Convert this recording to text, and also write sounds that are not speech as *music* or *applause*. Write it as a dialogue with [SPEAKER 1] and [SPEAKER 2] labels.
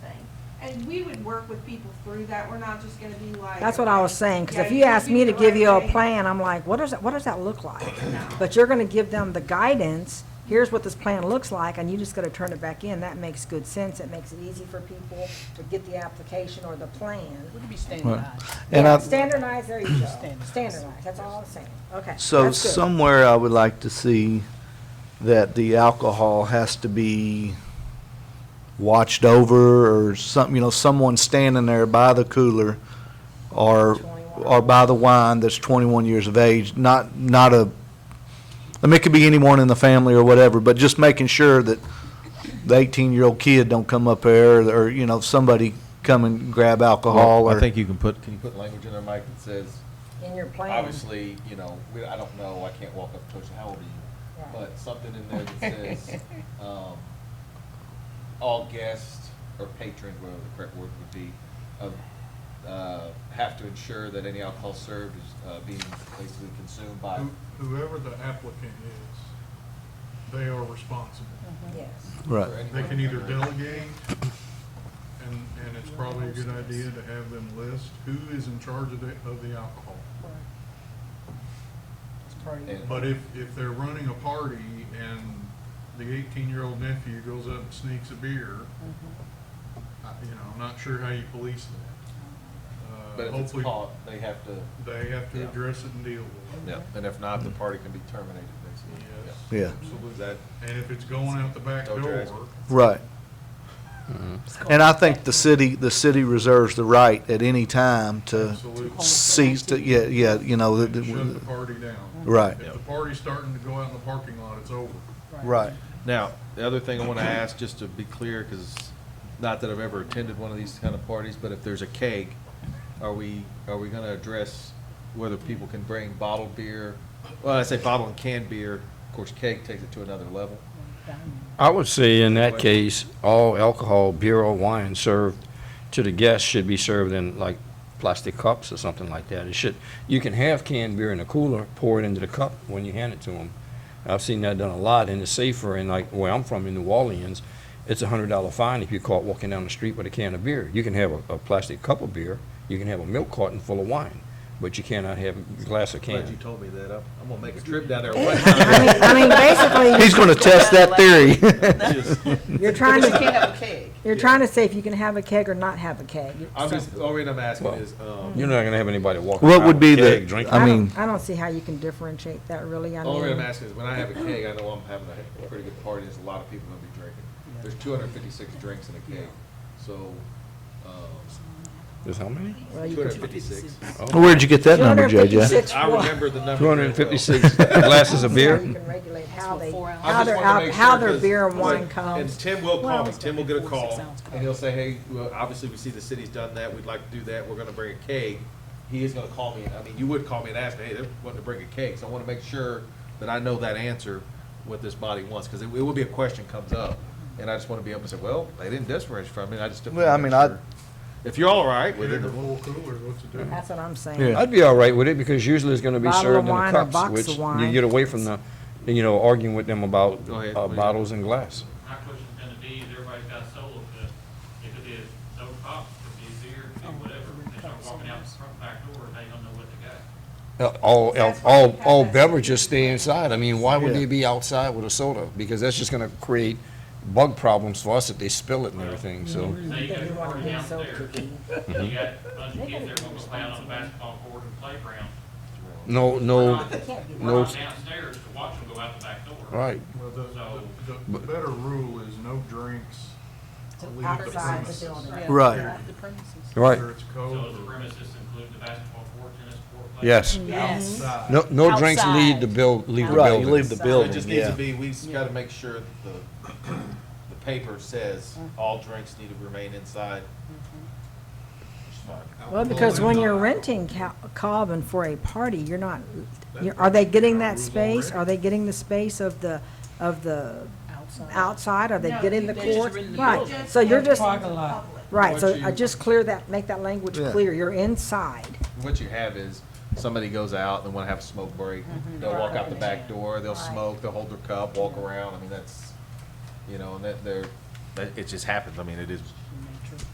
[SPEAKER 1] and we would work with people through that, we're not just gonna be like.
[SPEAKER 2] That's what I was saying, because
[SPEAKER 1] Yeah,
[SPEAKER 2] if you ask
[SPEAKER 1] do
[SPEAKER 2] me
[SPEAKER 1] the
[SPEAKER 2] to give
[SPEAKER 1] right
[SPEAKER 2] you a
[SPEAKER 1] thing.
[SPEAKER 2] plan, I'm like, what does, that- what does that look like?
[SPEAKER 1] No.
[SPEAKER 2] But you're gonna give them the guidance, here's what this plan looks like, and you just gotta turn it back in, that makes good sense, it makes it easy for people to get the application or the plan.
[SPEAKER 3] Would be standardized?
[SPEAKER 4] And
[SPEAKER 2] Yeah,
[SPEAKER 4] I,
[SPEAKER 2] Standardized, there you go,
[SPEAKER 3] Standardized.
[SPEAKER 2] standardized, that's all I'm saying, okay.
[SPEAKER 4] so
[SPEAKER 2] that's good.
[SPEAKER 4] somewhere I would like to see that the alcohol has to be watched over or some, you know, someone standing there by the cooler or,
[SPEAKER 2] 21.
[SPEAKER 4] or by the wine that's twenty-one years of age, not, not a, I mean, it could be anyone in the family or whatever, but just making sure that the eighteen-year-old kid don't come up there or, you know, somebody come and grab alcohol
[SPEAKER 5] Well,
[SPEAKER 4] or.
[SPEAKER 5] I think you can put, can you put language in there, Mike, that says,
[SPEAKER 2] In your plan.
[SPEAKER 5] obviously, you know, we, I don't know, I can't walk up to Coach, how old are you?
[SPEAKER 2] Right.
[SPEAKER 5] But something in there that says, um, all guests or patrons, whatever the correct word would be, of, uh, have to ensure that any alcohol served is, uh, being basically consumed by.
[SPEAKER 6] Who- Whoever the applicant is, they are responsible.
[SPEAKER 2] Yes.
[SPEAKER 4] Right.
[SPEAKER 5] for anyone
[SPEAKER 6] They can either
[SPEAKER 5] under-
[SPEAKER 6] delegate, and, and it's probably a good idea to have them list who is in charge of the, of the alcohol.
[SPEAKER 5] and-
[SPEAKER 6] But if, if they're running a party and the eighteen-year-old nephew goes up and sneaks a beer, I- you know, I'm not sure how you police that.
[SPEAKER 2] Mm-hmm.
[SPEAKER 5] But
[SPEAKER 6] Uh,
[SPEAKER 5] if it's
[SPEAKER 6] Hopefully,
[SPEAKER 5] caught, they have to,
[SPEAKER 6] They have to
[SPEAKER 5] Yeah.
[SPEAKER 6] address it and deal with it.
[SPEAKER 5] yeah, and if not, the party can be terminated, basically.
[SPEAKER 6] Yes.
[SPEAKER 5] Yeah.
[SPEAKER 4] Yeah.
[SPEAKER 5] Is that,
[SPEAKER 6] And if it's going out the back
[SPEAKER 5] Don't
[SPEAKER 6] door,
[SPEAKER 5] drag.
[SPEAKER 4] Right. And I think the city, the city reserves the right at any time to
[SPEAKER 6] absolutely.
[SPEAKER 4] cease to, yeah, yeah, you know,
[SPEAKER 6] Shut
[SPEAKER 4] that-
[SPEAKER 6] the
[SPEAKER 4] that-
[SPEAKER 6] party down.
[SPEAKER 4] right,
[SPEAKER 6] If the party's starting to go out in the parking lot, it's over.
[SPEAKER 4] right.
[SPEAKER 7] Now, the other thing I want to ask, just to be clear, because not that I've ever attended one of these kind of parties, but if there's a keg, are we, are we going to address whether people can bring bottled beer? Well, I say bottled and canned beer, of course, keg takes it to another level.
[SPEAKER 8] I would say in that case, all alcohol, beer or wine served to the guests should be served in like plastic cups or something like that. It should, you can have canned beer in a cooler, pour it into the cup when you hand it to them. I've seen that done a lot and it's safer and like where I'm from in New Orleans, it's a hundred dollar fine if you're caught walking down the street with a can of beer. You can have a, a plastic cup of beer, you can have a milk carton full of wine, but you cannot have a glass of
[SPEAKER 7] Glad you
[SPEAKER 8] can.
[SPEAKER 7] told me that. I'm I'm gonna make a trip
[SPEAKER 2] *laughs*
[SPEAKER 7] down there. one time.
[SPEAKER 2] I mean, I mean, basically,
[SPEAKER 4] He's gonna test that theory.
[SPEAKER 2] you're trying
[SPEAKER 3] You
[SPEAKER 2] to,
[SPEAKER 3] can't have a keg.
[SPEAKER 2] you're trying to say if you can have a keg or not have a keg.
[SPEAKER 7] *laughs* I'm just, all right, I'm asking
[SPEAKER 8] Well,
[SPEAKER 7] is, um,
[SPEAKER 8] You're not gonna have anybody walking
[SPEAKER 4] What
[SPEAKER 8] around
[SPEAKER 4] would
[SPEAKER 8] with
[SPEAKER 4] be
[SPEAKER 8] a keg
[SPEAKER 4] the,
[SPEAKER 8] drinking.
[SPEAKER 4] I
[SPEAKER 2] don't-
[SPEAKER 4] mean,
[SPEAKER 2] I don't see how you can differentiate that really, I mean.
[SPEAKER 7] all right, I'm asking is, when I have a keg, I know I'm having a pretty good party, there's a lot of people gonna be drinking. There's two hundred and fifty-six drinks in a keg, so, um,
[SPEAKER 8] There's how many?
[SPEAKER 2] Well, you
[SPEAKER 7] two
[SPEAKER 2] could-
[SPEAKER 7] hundred and fifty-six.
[SPEAKER 4] where'd you get that number, JJ?
[SPEAKER 2] 256.
[SPEAKER 7] I remember the number.
[SPEAKER 8] Two
[SPEAKER 7] very
[SPEAKER 8] hundred and
[SPEAKER 7] well.
[SPEAKER 8] fifty-six glasses of
[SPEAKER 2] So
[SPEAKER 8] beer?
[SPEAKER 2] You can regulate how they,
[SPEAKER 7] I
[SPEAKER 2] how
[SPEAKER 7] just
[SPEAKER 2] their,
[SPEAKER 7] wanna
[SPEAKER 2] al-
[SPEAKER 7] make
[SPEAKER 2] how
[SPEAKER 7] sure,
[SPEAKER 2] their
[SPEAKER 7] 'cause-
[SPEAKER 2] beer and
[SPEAKER 7] like,
[SPEAKER 2] wine
[SPEAKER 7] And
[SPEAKER 2] comes.
[SPEAKER 7] Tim will
[SPEAKER 3] Well,
[SPEAKER 7] call me,
[SPEAKER 3] it's
[SPEAKER 7] Tim will
[SPEAKER 3] gotta
[SPEAKER 7] get a
[SPEAKER 3] be four, six
[SPEAKER 7] call,
[SPEAKER 3] ounce cup.
[SPEAKER 7] and he'll say, hey, well, obviously, we see the city's done that, we'd like to do that, we're gonna bring a keg. He is gonna call me, I mean, you would call me and ask me, hey, they're wanting to bring a keg, so I wanna make sure that I know that answer, what this body wants, because it it will be a question comes up, and I just wanna be able to say, well, they didn't disparage from it, I just. didn't
[SPEAKER 4] Well, I
[SPEAKER 7] make
[SPEAKER 4] mean, I-
[SPEAKER 7] sure. If you're all right
[SPEAKER 6] Get
[SPEAKER 7] with
[SPEAKER 6] in
[SPEAKER 7] it,
[SPEAKER 6] the little cooler, what's it do?
[SPEAKER 2] That's what I'm saying.
[SPEAKER 4] Yeah.
[SPEAKER 8] I'd be all right with it because usually it's gonna be
[SPEAKER 2] Bottle of
[SPEAKER 8] served in
[SPEAKER 2] wine
[SPEAKER 8] the
[SPEAKER 2] or box
[SPEAKER 8] cups,
[SPEAKER 2] of
[SPEAKER 8] which
[SPEAKER 2] wine.
[SPEAKER 8] you get away from the, you know, arguing with them about
[SPEAKER 7] Go ahead,
[SPEAKER 8] uh,
[SPEAKER 7] please.
[SPEAKER 8] bottles and glass.
[SPEAKER 9] My question's gonna be, is everybody's got a solo cup. It could be a soda pop, it could be a beer, it could be whatever. They start walking out the front back door, they don't know what
[SPEAKER 8] *laughs*
[SPEAKER 9] they got.
[SPEAKER 8] Uh, All, all-
[SPEAKER 1] That's why we
[SPEAKER 8] all,
[SPEAKER 1] have
[SPEAKER 8] all
[SPEAKER 1] that.
[SPEAKER 8] beverages stay inside. I mean, why would
[SPEAKER 4] Yeah.
[SPEAKER 8] they be outside with a soda? Because that's just gonna create bug problems for us if they spill it and everything, so.
[SPEAKER 2] Mm-hmm.
[SPEAKER 9] Say you got
[SPEAKER 2] You
[SPEAKER 9] a
[SPEAKER 2] wanna
[SPEAKER 9] party
[SPEAKER 2] get so
[SPEAKER 9] downstairs, you got a bunch of kids that are gonna play out on the basketball court and playground.
[SPEAKER 8] No,
[SPEAKER 9] We're
[SPEAKER 8] no,
[SPEAKER 9] not-
[SPEAKER 8] no-
[SPEAKER 9] We're not downstairs to watch them go out the back door.
[SPEAKER 8] right.
[SPEAKER 6] Well, the,
[SPEAKER 9] So-
[SPEAKER 6] the- the better rule is no drinks. leave the
[SPEAKER 2] Outside the
[SPEAKER 6] premises.
[SPEAKER 2] building.
[SPEAKER 3] Yeah.
[SPEAKER 4] Right.
[SPEAKER 3] The premises.
[SPEAKER 8] Right.
[SPEAKER 6] Whether it's
[SPEAKER 9] So does
[SPEAKER 6] cold
[SPEAKER 9] the
[SPEAKER 6] or
[SPEAKER 9] premises include the basketball court, tennis court? playground?
[SPEAKER 8] Yes.
[SPEAKER 3] Yes.
[SPEAKER 6] outside.
[SPEAKER 8] No, no drinks leave
[SPEAKER 3] Outside.
[SPEAKER 8] the build, leave the
[SPEAKER 4] Right, you leave
[SPEAKER 8] building.
[SPEAKER 4] the
[SPEAKER 7] It
[SPEAKER 4] building,
[SPEAKER 7] just needs to
[SPEAKER 4] yeah.
[SPEAKER 7] be, we just gotta make sure that the, the paper says all drinks need to remain inside. Which is fine.
[SPEAKER 2] Well, because when you're renting ca- Cobbin for a party, you're not, you're- are they getting that space? Are they getting the space of the, of the outside? Are they
[SPEAKER 3] No,
[SPEAKER 2] getting the
[SPEAKER 3] they're just
[SPEAKER 2] court?
[SPEAKER 3] renting the
[SPEAKER 2] Right,
[SPEAKER 3] building.
[SPEAKER 2] so you're just,
[SPEAKER 1] Public.
[SPEAKER 2] right, so
[SPEAKER 7] What
[SPEAKER 2] I
[SPEAKER 7] you-
[SPEAKER 2] just clear that, make that language
[SPEAKER 4] Yeah.
[SPEAKER 2] clear, you're inside.
[SPEAKER 7] What you have is, somebody goes out, they wanna have a smoke break, they'll walk out the back door, they'll smoke, they'll hold their cup, walk around, I mean, that's, you know, and that, they're, that, it just happens, I mean, it is